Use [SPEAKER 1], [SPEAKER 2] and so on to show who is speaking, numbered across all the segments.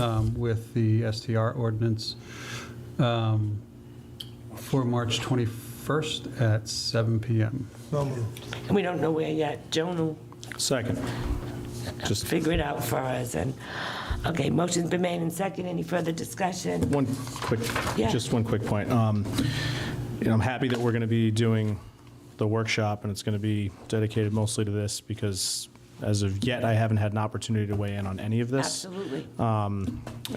[SPEAKER 1] um, with the STR ordinance um, for March 21st at 7 PM.
[SPEAKER 2] So moved.
[SPEAKER 3] And we don't know where yet. Joan will
[SPEAKER 4] Second. Just
[SPEAKER 3] figure it out for us. And, okay, motion's been made and second. Any further discussion?
[SPEAKER 4] one quick,
[SPEAKER 3] Yeah.
[SPEAKER 4] just one quick point. Um, You know, I'm happy that we're going to be doing the workshop, and it's going to be dedicated mostly to this, because as of yet, I haven't had an opportunity to weigh in on any of this.
[SPEAKER 3] Absolutely.
[SPEAKER 4] Uh,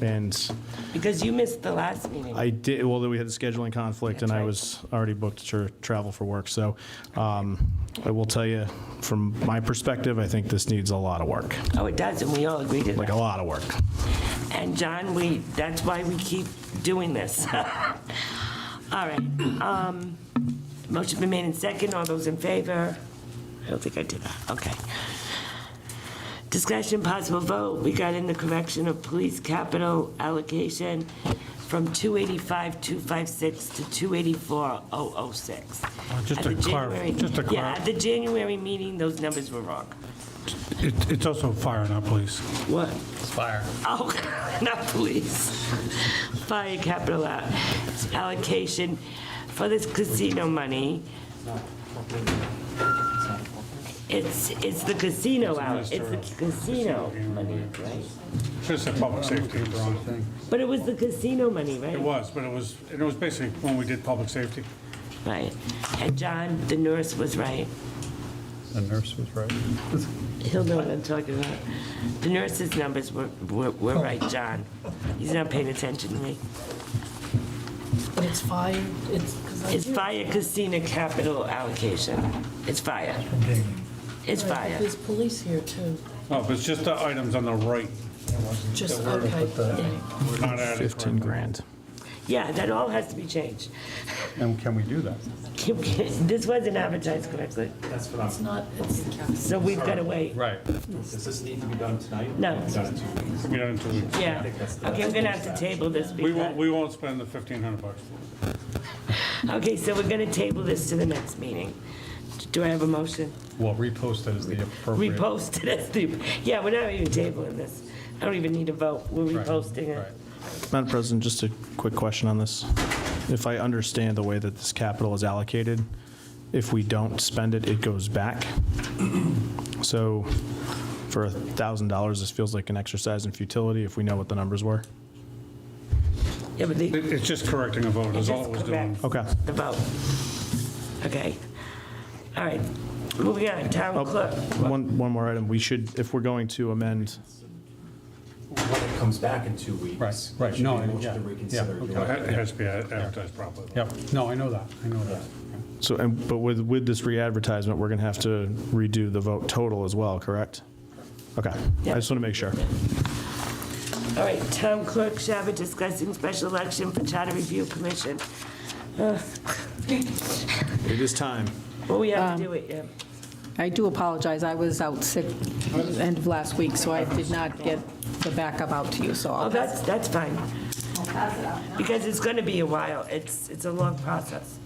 [SPEAKER 4] And
[SPEAKER 3] Because you missed the last meeting.
[SPEAKER 4] I did, well, we had the scheduling conflict, and
[SPEAKER 3] That's
[SPEAKER 4] I
[SPEAKER 3] right.
[SPEAKER 4] was already booked to travel for work. So um, I will tell you, from my perspective, I think this needs a lot of work,
[SPEAKER 3] Oh, it does, and we all agree to
[SPEAKER 4] like a
[SPEAKER 3] that.
[SPEAKER 4] lot of work.
[SPEAKER 3] And John, we, that's why we keep doing this. All right. um, Motion been made and second. All those in favor? I don't think I did that. Okay. Discussion, possible vote regarding the correction of police capital allocation from 285,256 to 284,006.
[SPEAKER 5] just
[SPEAKER 3] oh, At
[SPEAKER 5] to
[SPEAKER 3] the
[SPEAKER 5] clarif-
[SPEAKER 3] January-
[SPEAKER 5] just to
[SPEAKER 3] Yeah,
[SPEAKER 5] clarif-
[SPEAKER 3] at the January meeting, those numbers were wrong.
[SPEAKER 5] It- It's also fire, not police.
[SPEAKER 3] What?
[SPEAKER 1] Fire.
[SPEAKER 3] Oh, not police. Fire capital out- allocation for this casino money. It's, it's the casino out, it's the casino money, right?
[SPEAKER 5] It's a public safety.
[SPEAKER 3] But it was the casino money, right?
[SPEAKER 5] It was, but it was, and it was basically when we did public safety.
[SPEAKER 3] Right. And John, the nurse was right.
[SPEAKER 1] The nurse was right.
[SPEAKER 3] He'll know what I'm talking about. The nurse's numbers were, were were right, John. He's not paying attention to me.
[SPEAKER 6] But it's fire, it's, because I
[SPEAKER 3] It's
[SPEAKER 6] do.
[SPEAKER 3] fire casino capital allocation. It's fire. It's
[SPEAKER 6] Right, but
[SPEAKER 3] fire.
[SPEAKER 6] There's police here too,
[SPEAKER 5] Oh, but it's just the items on the right.
[SPEAKER 6] just, okay, yeah.
[SPEAKER 5] We're not at it.
[SPEAKER 4] 15 grand.
[SPEAKER 3] Yeah, that all has to be changed.
[SPEAKER 1] And can we do that?
[SPEAKER 3] Can- can- This wasn't advertised correctly,
[SPEAKER 6] it's not, it's,
[SPEAKER 3] so we've got to wait.
[SPEAKER 1] Right.
[SPEAKER 7] Does this need to be done tonight?
[SPEAKER 3] No.
[SPEAKER 7] Done in two weeks.
[SPEAKER 5] We don't, do it.
[SPEAKER 3] Yeah, okay, we're gonna have to table this
[SPEAKER 5] we won't,
[SPEAKER 3] because,
[SPEAKER 5] we won't spend the 1,500 bucks.
[SPEAKER 3] okay, so we're gonna table this to the next meeting. Do I have a motion?
[SPEAKER 1] Well, repost it as the appropriate.
[SPEAKER 3] Repost it as the, yeah, we're not even tabling this. I don't even need a vote, we're
[SPEAKER 1] Right,
[SPEAKER 3] reposting
[SPEAKER 1] right.
[SPEAKER 3] it.
[SPEAKER 4] Madam President, just a quick question on this. If I understand the way that this capital is allocated, if we don't spend it, it goes back. So for $1,000, this feels like an exercise in futility if we know what the numbers were.
[SPEAKER 3] Yeah, but the,
[SPEAKER 5] It- It's just correcting a vote, is all it was doing.
[SPEAKER 3] Correct.
[SPEAKER 4] Okay.
[SPEAKER 3] the vote. Okay, all right, moving on, town
[SPEAKER 4] Oh.
[SPEAKER 3] clerk.
[SPEAKER 4] One, one more item. We should, if we're going to amend,
[SPEAKER 7] When it comes back in two weeks.
[SPEAKER 1] Right, right.
[SPEAKER 7] it should
[SPEAKER 1] No,
[SPEAKER 7] be
[SPEAKER 1] I-
[SPEAKER 7] a motion
[SPEAKER 1] yeah,
[SPEAKER 7] to reconsider.
[SPEAKER 1] yeah,
[SPEAKER 7] your-
[SPEAKER 1] okay.
[SPEAKER 5] It has to be advertised properly.
[SPEAKER 1] Yep, no, I know that, I know that.
[SPEAKER 4] so, and- but with, with this re-advertisement, we're going to have to redo the vote total as well, correct? Okay. I just want to make sure.
[SPEAKER 3] All right, town clerk Shabbat discussing special election for charter review commission.
[SPEAKER 4] It is time.
[SPEAKER 3] Well, we have to do it, yeah.
[SPEAKER 8] I do apologize, I was out sick end of last week, so I did not get the backup out to you, so
[SPEAKER 3] Oh,
[SPEAKER 8] I'll pass
[SPEAKER 3] that's, that's fine. Because it's gonna be a while, it's, it's a long process.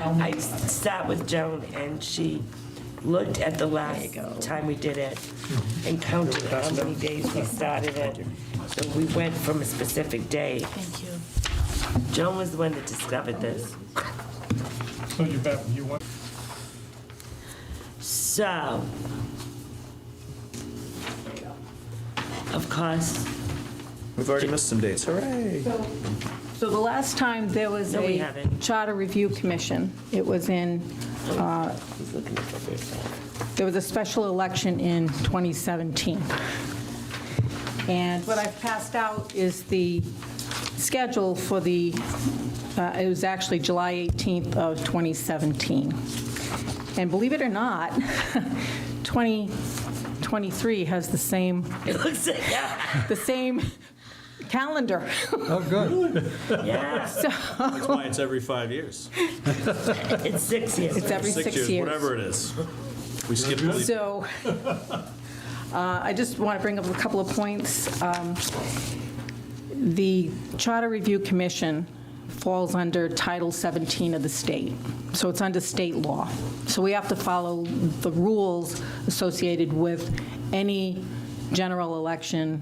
[SPEAKER 3] I sat with Joan and she looked at the last time we did it and counted how many days we started it. So we went from a specific day.
[SPEAKER 6] thank you.
[SPEAKER 3] Joan was the one that discovered this.
[SPEAKER 5] So you bet, you want?
[SPEAKER 3] So, of course,
[SPEAKER 7] We've already missed some dates. Hooray.
[SPEAKER 8] So the last time there was
[SPEAKER 3] No, we
[SPEAKER 8] a
[SPEAKER 3] haven't.
[SPEAKER 8] charter review commission, it was in, uh, there was a special election in 2017. And what I've passed out is the schedule for the, uh, it was actually July 18th of 2017. And believe it or not, 2023 has the same,
[SPEAKER 3] it looks like, yeah,
[SPEAKER 8] the same calendar.
[SPEAKER 1] Oh, good.
[SPEAKER 3] yeah,
[SPEAKER 4] That's why it's every five years.
[SPEAKER 3] it's six years.
[SPEAKER 8] It's every six years.
[SPEAKER 4] it is. We skip the
[SPEAKER 8] So uh, I just want to bring up a couple of points. Um, The Charter Review Commission falls under Title 17 of the state, so it's under state law. So we have to follow the rules associated with any general election